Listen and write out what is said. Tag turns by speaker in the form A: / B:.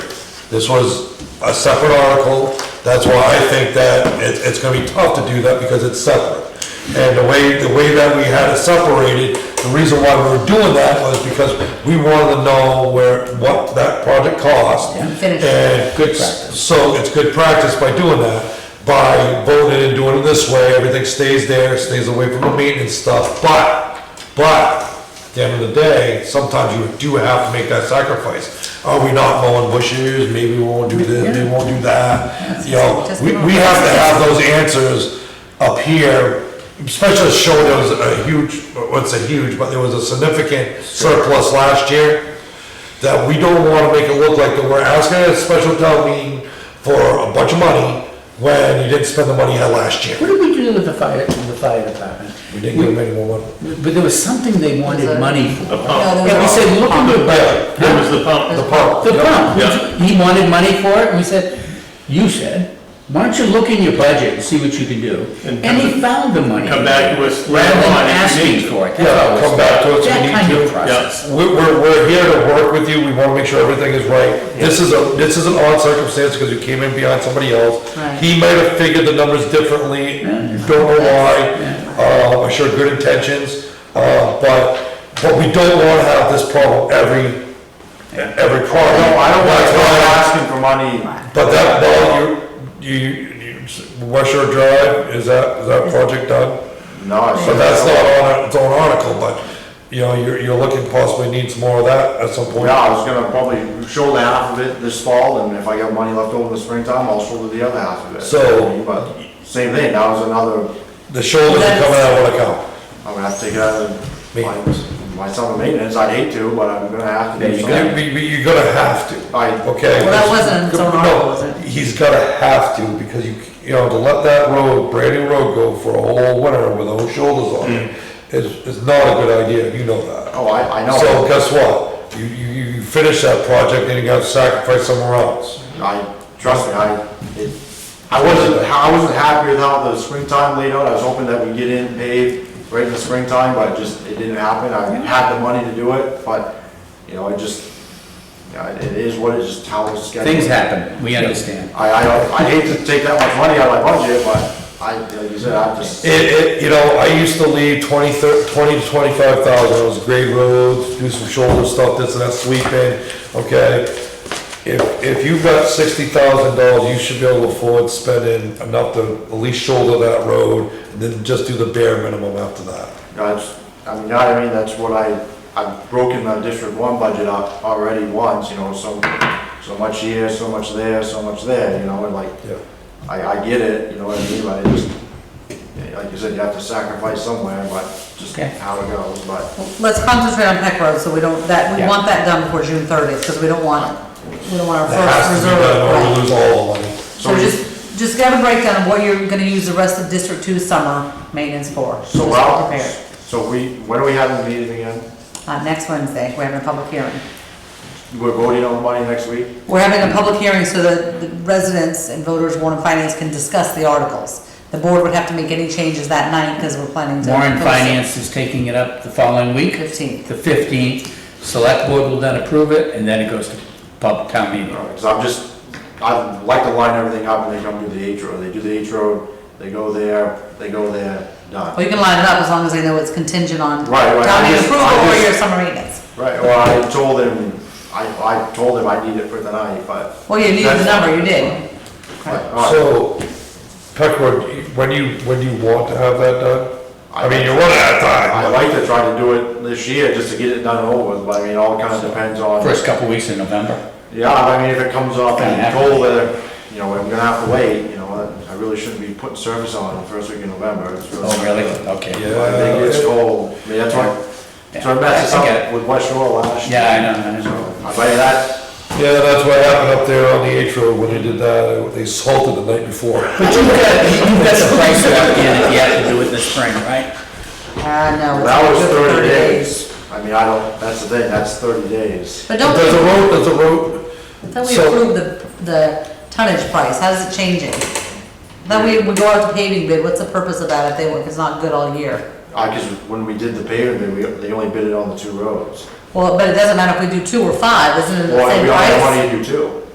A: This was a separate article, that's why I think that it, it's gonna be tough to do that because it's separate. And the way, the way that we had it separated, the reason why we were doing that was because we wanted to know where, what that project cost.
B: Yeah, finish.
A: And good,
B: practice.
A: so it's good practice by doing that, by voting and doing it this way, everything stays there, stays away from the maintenance stuff, but, but, at the end of the day, sometimes you do have to make that sacrifice. Are we not mowing bushes, maybe we won't do this, maybe we won't do that, you know, we, we have to have those answers up here, especially to show there was a huge, what's a huge, but there was a significant surplus last year that we don't wanna make it look like that we're asking a special town meeting for a bunch of money when you didn't spend the money you had last year.
C: What did we do with the fire, with the fire department?
A: We didn't give them any more money.
C: But there was something they wanted money for.
D: The pump.
C: And we said, look into it.
D: It was the pump.
A: The pump.
C: The pump,
D: Yeah.
C: he wanted money for it, and we said, you said, why don't you look in your budget and see what you can do?
D: And
C: And
D: come-
C: he found the money.
D: Come back to us later
C: Rather
D: on
C: than
D: if you need
C: asking
D: to.
C: for it. That's
A: Yeah,
C: always-
A: come back to us, we
C: That
A: need
C: kind
A: to.
C: of process.
A: We- We're, we're here to work with you, we wanna make sure everything is right. This is a, this is an odd circumstance because you came in behind somebody else.
B: Right.
A: He might have figured the numbers differently, don't know why, uh, I'm sure good intentions, uh, but, but we don't wanna have this problem every, every problem.
E: No, I don't want
A: That's
E: to
A: why I-
E: asking for money.
A: But that, well, you, you, you, West Shore Drive, is that, is that project done?
E: No,
A: So that's not on its own article, but, you know, you're, you're looking possibly needs more of that at some point.
E: Yeah, I was gonna probably shoulder half of it this fall, and if I got money left over in the springtime, I'll shoulder the other half of it.
A: So-
E: But same thing, that was another,
A: The shoulders are coming out of account.
E: I'm gonna have to take it out of
A: Maintenance.
E: my, my summer maintenance, I'd hate to, but I'm gonna have to. do something.
A: You, you- you're gonna have to,
E: I,
A: okay?
B: Well, that wasn't its own article,
A: No,
B: was it?
A: He's gonna have to, because you, you know, to let that road, brand new road go for a whole winter with those shoulders on it,
B: Mm.
A: is, is not a good idea, you know that.
E: oh, I, I
A: So
E: know,
A: guess what? You, you, you- you finish that project, then you gotta sacrifice somewhere else.
E: I, trust me, I, it, I wasn't, I wasn't happy with how the springtime laid out, I was hoping that we'd get in paid right in the springtime, but just, it didn't happen, I had the money to do it, but, you know, it just, yeah, it is what it is, just how it's scheduled.
C: Things happen, we understand.
E: I, I don't, I hate to take that much money out of my budget, but I, like you said, I just,
A: It, it, you know, I used to leave twenty, thir- twenty to twenty-five thousand, it was grade roads, do some shoulder stuff, this and that, sweeping, okay? If, if you've got sixty thousand dollars, you should be able to afford spending enough to at least shoulder that road, and then just do the bare minimum after that.
E: that's, I mean, you know what I mean, that's what I, I've broken the District One budget up already once, you know, so, so much here, so much there, so much there, you know, and like,
A: Yeah.
E: I, I get it, you know what I mean, but it just, yeah, like you said, you have to sacrifice somewhere, but just
C: Okay.
E: how it goes, but,
B: Let's concentrate on Peck Road, so we don't, that, we
C: Yeah.
B: want that done before June thirtieth, because we don't want, we don't want our
A: That has
B: first
A: to be
B: reserve.
A: done, or
B: right.
A: we lose all the money.
B: So just, just get a breakdown of what you're gonna use the rest of District Two summer maintenance for.
E: so
B: Just
E: we're out.
B: prepare.
E: So we, when are we having the meeting again?
B: Uh, next Wednesday, we're having a public hearing.
E: We're voting on the money next week?
B: We're having a public hearing so that the residents and voters, Warren and Finance can discuss the articles. The board would have to make any changes that night, because we're planning to.
C: Warren
B: post it
C: Finance is taking it up the following week.
B: Fifteenth.
C: The fifteenth, select board will then approve it, and then it goes to pub town meeting.
E: Because I'm just, I like to line everything up and they come do the H road, they do the H road, they go there, they go there,
B: Well,
E: done.
B: you can line it up as long as they know it's contingent on
E: Right, right, I
B: town meeting
E: just- I
B: approval or
E: just-
B: your summer maintenance.
E: Right, well, I told him, I, I told him I need it for tonight, but,
B: Well, you needed the number, you did.
E: but, all right.
A: So, Peckwood, when you, when you want to have that done? I mean, you're running out of
E: I
A: time.
E: like to try to do it this year just to get it done over, with, but I mean, all kind of depends on.
C: First couple weeks in November.
E: Yeah, I mean, if it comes off
C: Gonna
E: and
C: have
E: cold weather, you know, I'm gonna have to wait, you know, I really shouldn't be putting service on in the first week of November. It's
C: Oh, really? Okay.
A: Yeah.
E: I think it's cold, I mean, that's what, so it messes
C: I get
E: up with West Shore last year.
C: Yeah, I know, I know.
E: I bet that,
A: Yeah, that's what happened up there on the H road when they did that, they salted the night before.
C: But you've got, you've got the price locked in if you have to do it in the spring, right?
B: Uh, no. it's
E: that was
B: only
E: thirty days. I mean, I don't, that's the thing, that's thirty days.
B: But don't,
A: There's a
B: we-
A: road, there's a road,
B: don't we
A: so-
B: approve the, the tonnage price, how's it changing? Then we would go out to paving bid, what's the purpose of that if they, if it's not good all year?
E: I, cause when we did the paving, we, they only bid it on the two roads.
B: Well, but it doesn't matter if we do two or five, isn't it the
E: Well,
B: same
E: we only had
B: price?
E: money to do two.